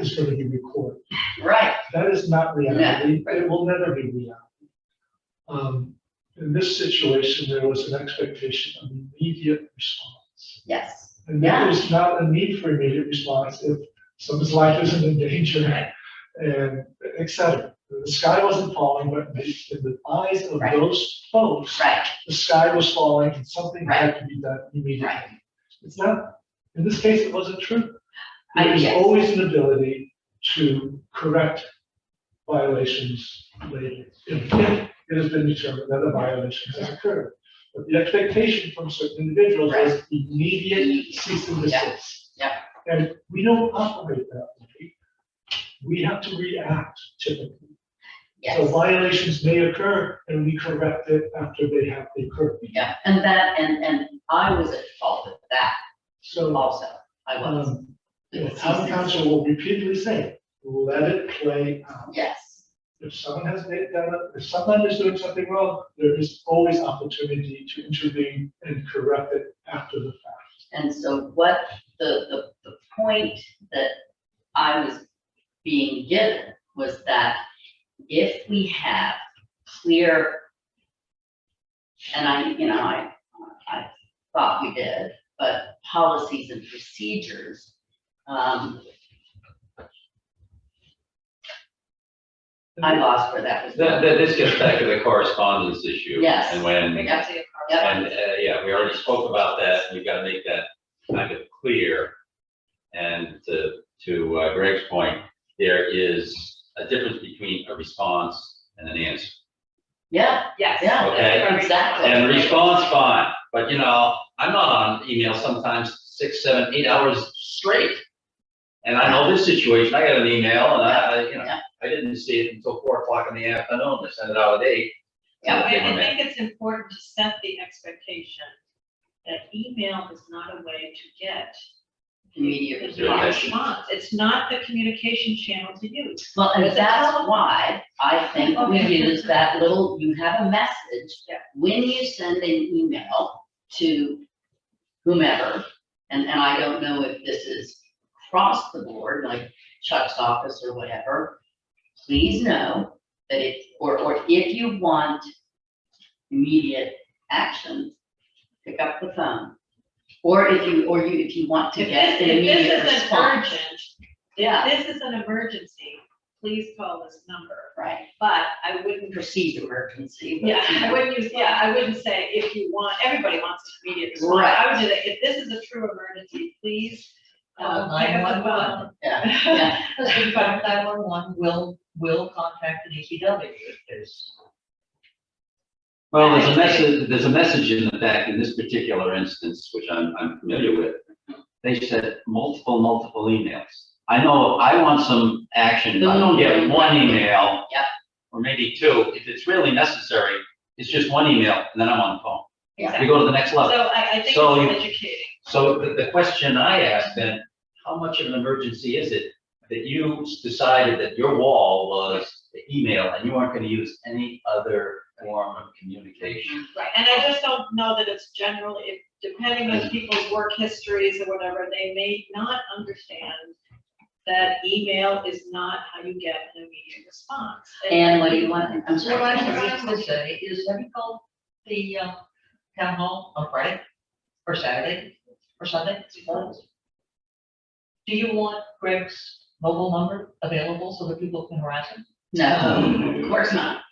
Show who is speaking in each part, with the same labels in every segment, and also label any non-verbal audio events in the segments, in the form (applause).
Speaker 1: just so they can record.
Speaker 2: Right,
Speaker 1: That is not reality, it will never be reality. Um, in this situation, there was an expectation of immediate response.
Speaker 2: yes,
Speaker 1: And there is not a need for immediate response if someone's life isn't in danger and et cetera. The sky wasn't falling, but in the- in the eyes of
Speaker 2: Right.
Speaker 1: those folks,
Speaker 2: right,
Speaker 1: the sky was falling and something had to be done
Speaker 2: right.
Speaker 1: immediately. It's not, in this case, it wasn't true.
Speaker 2: I-
Speaker 1: There's
Speaker 2: yes.
Speaker 1: always an ability to correct violations later. If if it has been determined that a violation has occurred. But the expectation from certain individuals is immediate cease and
Speaker 2: Yeah,
Speaker 1: desist.
Speaker 2: yeah.
Speaker 1: And we don't operate that way. We have to react typically. So
Speaker 2: Yes.
Speaker 1: violations may occur and we correct it after they have occurred.
Speaker 2: Yeah, and that, and, and I was at fault with that
Speaker 1: So,
Speaker 2: also, I was.
Speaker 1: um, the town council will repeatedly say, let it play out.
Speaker 2: Yes,
Speaker 1: If someone has made that, up, if someone is doing something wrong, there is always opportunity to intervene and correct it after the fact.
Speaker 2: and so what, the, the, the point that I was being given was that if we have clear, and I, you know, I, I thought we did, but policies and procedures, um, I lost where that was.
Speaker 3: That,
Speaker 2: going.
Speaker 3: that, this gets back to the correspondence issue.
Speaker 2: Yes.
Speaker 3: And when,
Speaker 2: We
Speaker 3: and,
Speaker 2: got to, yep,
Speaker 3: uh, yeah, we already spoke about that, we've got to make that kind of clear. And to, to uh, Greg's point, there is a difference between a response and an answer.
Speaker 2: yeah.
Speaker 4: Yes.
Speaker 2: Yeah,
Speaker 3: Okay.
Speaker 2: exactly.
Speaker 3: And response, fine, but you know, I'm not on email sometimes six, seven, eight hours straight. And I know this situation, I got an email and I, I, you know,
Speaker 2: Yeah.
Speaker 3: I didn't see it until four o'clock in the afternoon, they sent it out at eight.
Speaker 4: Yeah, I
Speaker 3: Give 'em
Speaker 4: I
Speaker 3: that.
Speaker 4: think it's important to set the expectation that email is not a way to get
Speaker 2: Immediate
Speaker 4: a
Speaker 2: response.
Speaker 3: Communication.
Speaker 4: response. It's not the communication channel to use.
Speaker 2: Well, and
Speaker 4: It's a
Speaker 2: that's
Speaker 4: problem.
Speaker 2: why I think we
Speaker 4: Okay.
Speaker 2: use that little, you have a message.
Speaker 4: Yeah.
Speaker 2: When you send an email to whomever, and, and I don't know if this is across the board, like Chuck's office or whatever, please know that it, or, or if you want immediate action, pick up the phone. Or if you, or you, if you want to
Speaker 4: If
Speaker 2: get
Speaker 4: this,
Speaker 2: an
Speaker 4: if
Speaker 2: immediate
Speaker 4: this is an
Speaker 2: response.
Speaker 4: urgent,
Speaker 2: Yeah,
Speaker 4: if this is an emergency, please call this number.
Speaker 2: right.
Speaker 4: But I wouldn't,
Speaker 2: perceived emergency. but-
Speaker 4: yeah, (laughs) I wouldn't use, yeah, I wouldn't say if you want, everybody wants an immediate response.
Speaker 2: Right.
Speaker 4: I would do that, if this is a true emergency, please, uh,
Speaker 5: Call
Speaker 4: pick up the
Speaker 5: 911.
Speaker 4: phone.
Speaker 2: Yeah,
Speaker 4: (laughs) Yeah.
Speaker 2: yeah,
Speaker 5: Because in fact, nine one one will, will contact an E ECW if there's.
Speaker 3: Well, there's a message, there's a message in the back, in this particular instance, which I'm, I'm familiar with. They sent multiple, multiple emails. I know, if I want some action, if I don't get one email.
Speaker 2: Yep.
Speaker 3: Or maybe two, if it's really necessary, it's just one email, and then I'm on the phone. We
Speaker 4: Exactly.
Speaker 3: go to the next
Speaker 4: So
Speaker 3: level.
Speaker 4: I, I think
Speaker 3: So you-
Speaker 4: it's educating.
Speaker 3: So the, the question I asked then, how much of an emergency is it that you decided that your wall was the email and you weren't gonna use any other form of communication?
Speaker 4: Right, and I just don't know that it's general, if, depending on people's work histories or whatever, they may not understand that email is not how you get an immediate response.
Speaker 2: and what do you want, I'm
Speaker 5: So what
Speaker 2: sorry.
Speaker 5: I was trying to say is, have you called the, um, town hall on Friday, or Saturday, or Sunday? Do you want Greg's mobile number available so that people can harass him?
Speaker 2: No, of course not.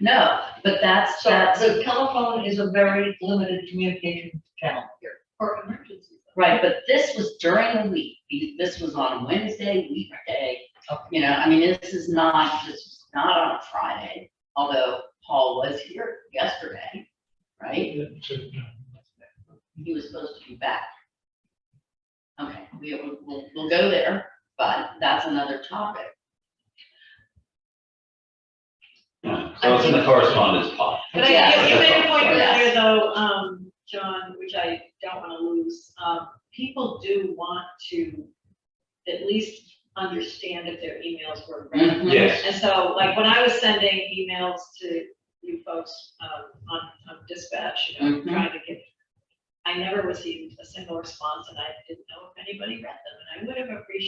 Speaker 2: No, but that's,
Speaker 5: So
Speaker 2: that's,
Speaker 5: the telephone is a very limited communication channel here.
Speaker 4: For emergencies.
Speaker 2: right, but this was during the week, The- this was on Wednesday, weekday.
Speaker 5: Okay.
Speaker 2: You know, I mean, this is not, this was not on a Friday, although Paul was here yesterday, right? He was supposed to be back. Okay, we, we'll- we'll, we'll go there, but that's another topic.
Speaker 3: Yeah, So it's in the correspondence part.
Speaker 4: But I
Speaker 2: Yes.
Speaker 4: think you made a point
Speaker 2: Yes.
Speaker 4: earlier though, um, John, which I don't wanna lose, um, people do want to at least understand if their emails were read.
Speaker 5: Mm-hmm.
Speaker 2: Mhm.
Speaker 3: Yes.
Speaker 4: And so, like, when I was sending emails to you folks, um, on, on dispatch, you know,
Speaker 2: Mhm.
Speaker 4: trying to get, I never received a single response, and I didn't know if anybody read them, and I would have appreciated